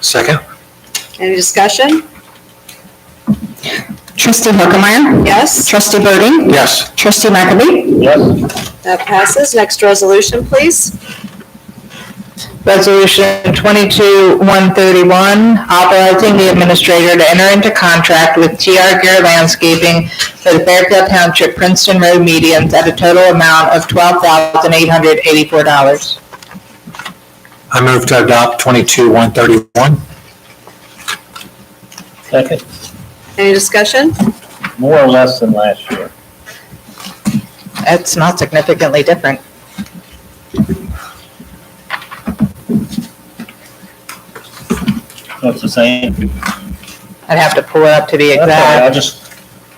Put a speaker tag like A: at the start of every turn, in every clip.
A: Second?
B: Any discussion?
C: Trustee Harkemaier.
B: Yes,
C: Trustee Burden.
A: Yes.
C: Trustee McAbey.
A: Yes.
B: that passes. Next resolution, please.
D: Resolution 22-131, authorizing the administrator to enter into contract with TR Gear Landscaping for the Fairfield Township Princeton Road medians at a total amount of $12,884.
A: I move to adopt twenty-two one thirty-one.
E: Second,
B: Any discussion?
E: more or less than last year.
D: That's not significantly different.
E: That's the same.
D: I'd have to pull it up to be
E: Okay, I
D: exact.
E: just,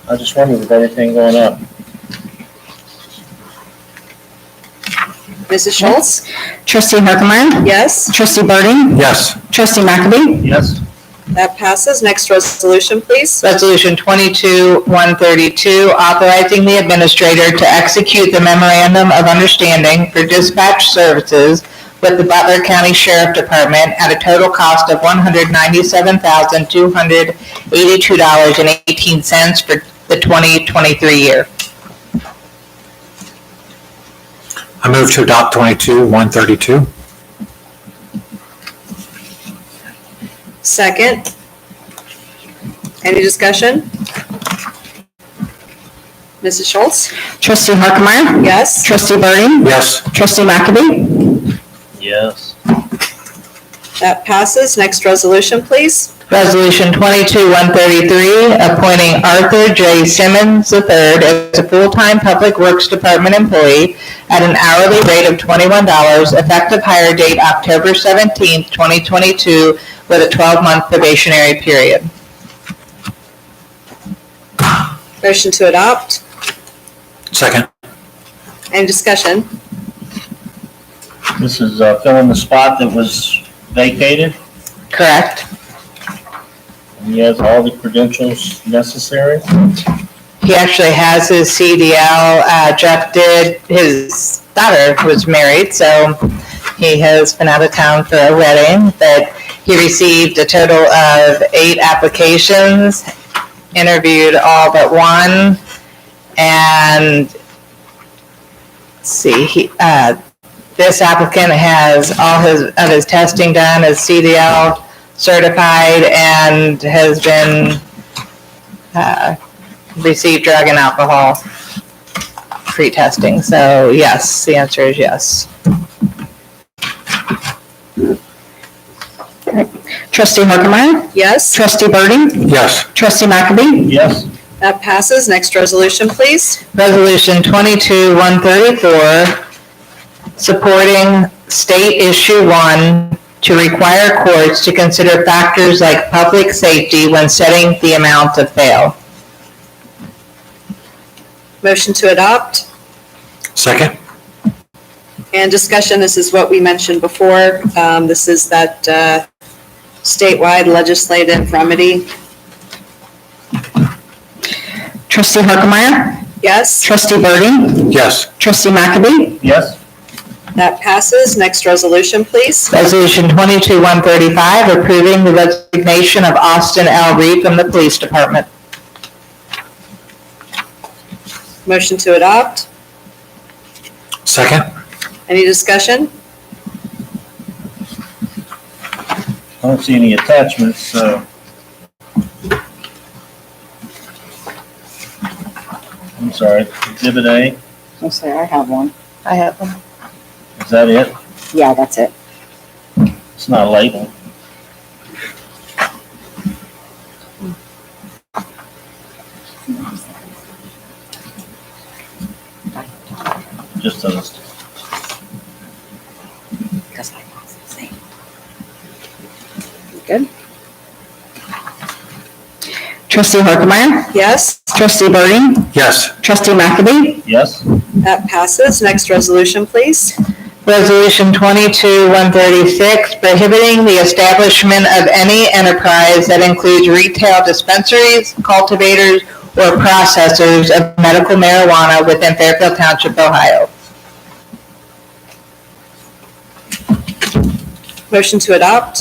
E: I just wondered with everything going up.
B: Mrs. Schultz?
C: Trustee Harkemaier.
B: Yes,
C: Trustee Burden.
A: Yes.
C: Trustee McAbey.
E: Yes,
B: that passes. Next resolution, please.
D: Resolution 22-132, authorizing the administrator to execute the memorandum of understanding for dispatch services with the Butler County Sheriff Department at a total cost of $197,282.18 for the 2023 year.
A: I move to adopt twenty-two one thirty-two.
B: Second. Any discussion? Mrs. Schultz?
C: Trustee Harkemaier.
B: Yes,
C: Trustee Burden.
A: Yes.
C: Trustee McAbey.
E: yes,
B: that passes. Next resolution, please.
D: Resolution 22-133, appointing Arthur J. Simmons III as a full-time Public Works Department employee at an hourly rate of $21, effective hire date October 17, 2022, with a 12-month probationary period.
B: Motion to adopt.
A: Second?
B: Any discussion?
E: this is uh, filling the spot that was vacated.
D: Correct?
E: He has all the credentials necessary.
D: He actually has his CDL. Uh, Jeff did, his daughter was married, so he has been out of town for a wedding. But he received a total of eight applications, interviewed all but one, and let's see, he, uh, this applicant has all his, of his testing done, is CDL certified, and has been, uh, receive drug and alcohol pre-testing. So yes, the answer is yes.
C: Trustee Harkemaier.
B: Yes,
C: Trustee Burden.
A: Yes.
C: Trustee McAbey.
E: Yes,
B: that passes. Next resolution, please.
D: Resolution 22-134, supporting State Issue 1 to require courts to consider factors like public safety when setting the amount of bail.
B: Motion to adopt.
A: Second?
B: And discussion, this is what we mentioned before. Um, This is that uh, statewide legislative remedy.
C: Trustee Harkemaier.
B: Yes,
C: Trustee Burden.
A: Yes.
C: Trustee McAbey.
E: yes,
B: that passes. Next resolution, please.
D: Resolution 22-135, approving the resignation of Austin L. Reed from the Police Department.
B: Motion to adopt.
A: Second?
B: Any discussion?
E: I don't see any attachments, so. I'm sorry, Exhibit A,
F: I'm sorry, I have one.
D: I have one.
E: is that it?
F: Yeah, that's it.
E: It's not labeled. Just a,
F: Because I lost the same. You Good?
C: Trustee Harkemaier.
B: Yes,
C: Trustee Burden.
A: Yes.
C: Trustee McAbey.
E: yes,
B: that passes. Next resolution, please.
D: Resolution 22-136, prohibiting the establishment of any enterprise that includes retail dispensaries, cultivators, or processors of medical marijuana within Fairfield Township, Ohio.
B: Motion to adopt?